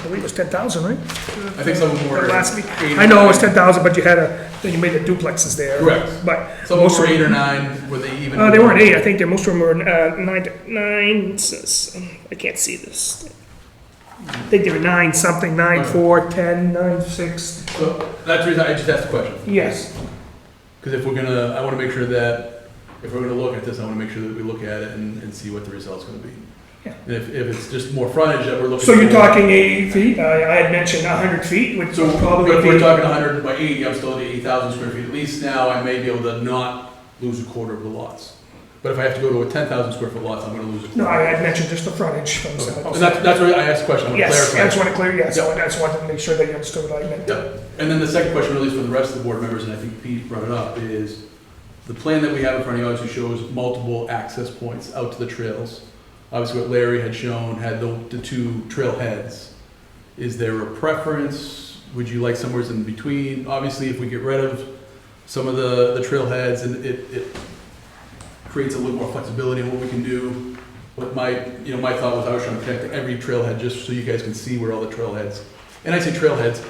I believe it was ten thousand, right? I think some of them were. Last week, eight or I know it was nine. ten thousand, but you had a, then you made the duplexes there. Correct. But. Some of most them were eight or them- nine, were they even? Uh, they weren't eight, I think they, most of them were, uh, nine, nine, s- s- I can't see this. I think they were nine something, nine, Okay. four, ten, nine, six, So that's the reason I just asked the question, yes, because if we're gonna, I wanna make sure that, if we're gonna look at this, I wanna make sure that we look at it and, and see what the result's gonna be. Yeah. And if, if it's just more frontage that we're looking. So you're for- talking eighty feet, I, I had mentioned hundred feet, which So would if probably we're be, talking hundred by eighty, I'm still at eighty thousand square feet, at least now I may be able to not lose a quarter of the lots. But if I have to go to a ten thousand square foot lot, I'm gonna lose a quarter. no, I had mentioned just the frontage from Okay. some. And that's, that's where I asked the question, I wanna Yes, I clarify. just want to clear, yes, Yeah. I just wanted to make sure that you understood what I meant. Yeah, and then the second question, at least for the rest of the board members, and I think Pete brought it up, is the plan that we have in front of you obviously shows multiple access points out to the trails. Obviously, what Larry had shown had the, the two trail heads. Is there a preference? Would you like somewhere in between? Obviously, if we get rid of some of the, the trail heads and it, it creates a little more flexibility in what we can do. But my, you know, my thought was I was trying to connect every trailhead just so you guys can see where all the trailheads, and I say trailheads,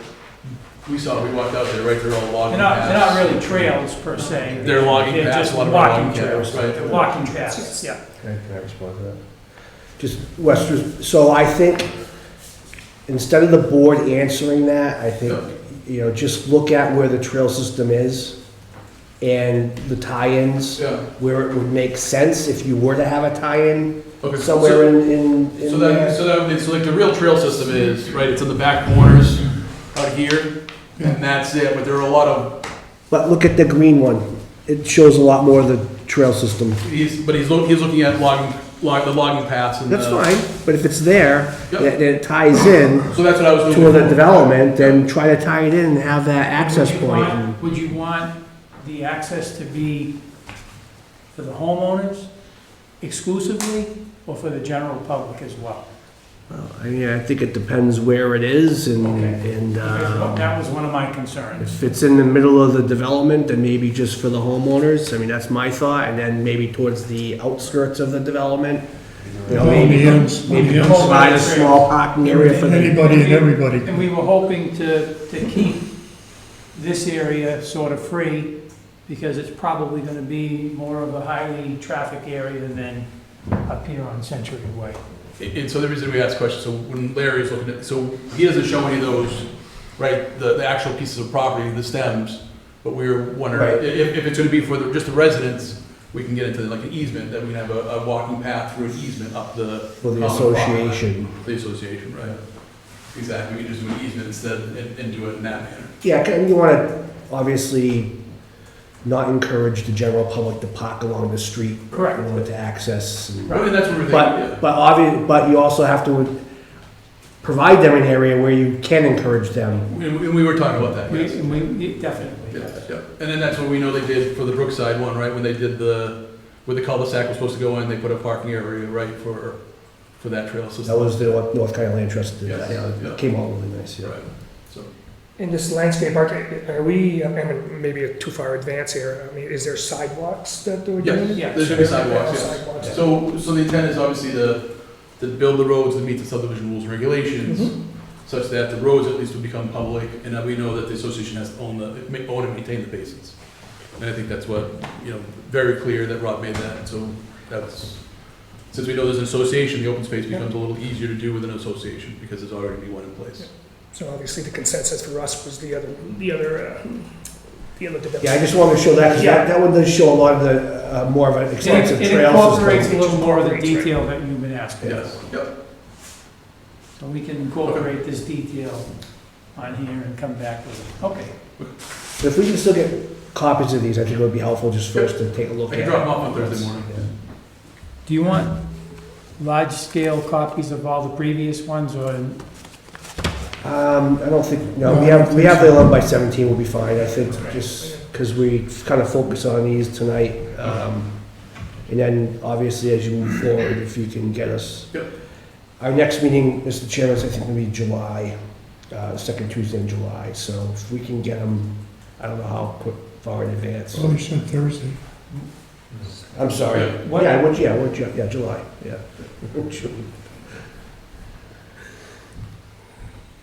we saw, we walked out there, right, they're all logging They're not, paths. they're not really trails per se. They're logging They're paths, just a lot of them are walking logging trails. paths, right? They're walking paths, yeah. Can I respond to that? Just, Western, so I think, instead of the board answering that, I think, you know, just look at where the trail system is and the tie-ins, Yeah, where it would make sense if you were to have a tie-in okay. so- somewhere in, in, So in that, there. so that, would be- so like the real trail system is, right, it's in the back corners out here, and that's it, but there are a lot of, But look at the green one. It shows a lot more of the trail system. he's, but he's looking, he's looking at logging, log, the logging paths and the. That's fine, but if it's there, Yep. that, that ties in So that's what I was to looking the for. development, then try to tie it in and have that access Would you point. want- Would you want the access to be for the homeowners exclusively, or for the general public as well? Well, I mean, I think it depends where it is and, Okay. and Uh, Because um, That was one of my concerns. if it's in the middle of the development, then maybe just for the homeowners. I mean, that's my thought, and then maybe towards the outskirts of the development. You know, maybe, maybe provide a small parking area for the, Anybody and everybody. And we were hoping to, to keep this area sort of free, because it's probably gonna be more of a highly traffic area than up here on Century Way. And and so the reason we asked questions, so when Larry's looking at, so he doesn't show any of those, right, the, the actual pieces of property, the stems, but we were wondering, i- Right. if, if it's gonna be for the, just the residents, we can get into like an easement, that we can have a, a walking path through an easement up the, for the common property line. association. the association, right? Exactly, we can just do an easement instead and, and do it in that manner. Yeah, and you want to obviously not encourage the general public to park along the street. Correct. You want it to access and Well, And that's what we're thinking, But, but obvious, but you also have to provide them an area where you can encourage them. yeah. And we, and we were talking about that, We, yes. and we, definitely. Yeah, yeah. And then that's what we know they did for the Brookside one, right, when they did the, where the cul-de-sac was supposed to go in, they put a parking area, right, for, for that trail That system. was the North North Carolina Land Trust, did that, Yes, yeah, yeah. it came out really nice, yeah. Right, so, In this landscape art, are we, I mean, maybe too far advanced here, I mean, is there sidewalks that they would do? yes, Yeah. there should be sidewalks, yes. Sidewalks. So, so the intent is obviously to, to build the roads that meet the subdivision rules and regulations, such that the roads at least will become public, and that we know that the association has to own the, ma- own and maintain the basins. And I think that's what, you know, very clear that Rob made that, so that's, since we know there's an association, the open space Yeah. becomes a little easier to do with an association, because there's already one in place. So obviously the consensus for us was the other, the other, uh, the other development. Yeah, I just wanted to show that, because Yeah. that, that one does show a lot of the, uh, more of an extensive It it trail incorporates system. a little more of the detail that you've been asking. Yes, yep, So we can incorporate this detail on here and come back with it. Okay. But If we can still get copies of these, I think it would be helpful just for us to take a I look can drop them at. off on Thursday morning. Do you want large-scale copies of all the previous ones, or Um, I don't think, no, we have, we have the eleven by seventeen will be fine, I think, just because we kind of focus on these tonight. Um, and then obviously as you move forward, if you can get us. Yep. Our next meeting, Mr. Chairman, is I think gonna be July, uh, second Tuesday in July, so if we can get them, I don't know how quick, far in advance. Well, you said Thursday. I'm sorry. Yeah. Yeah, I would, yeah, I would, yeah, yeah, July, yeah.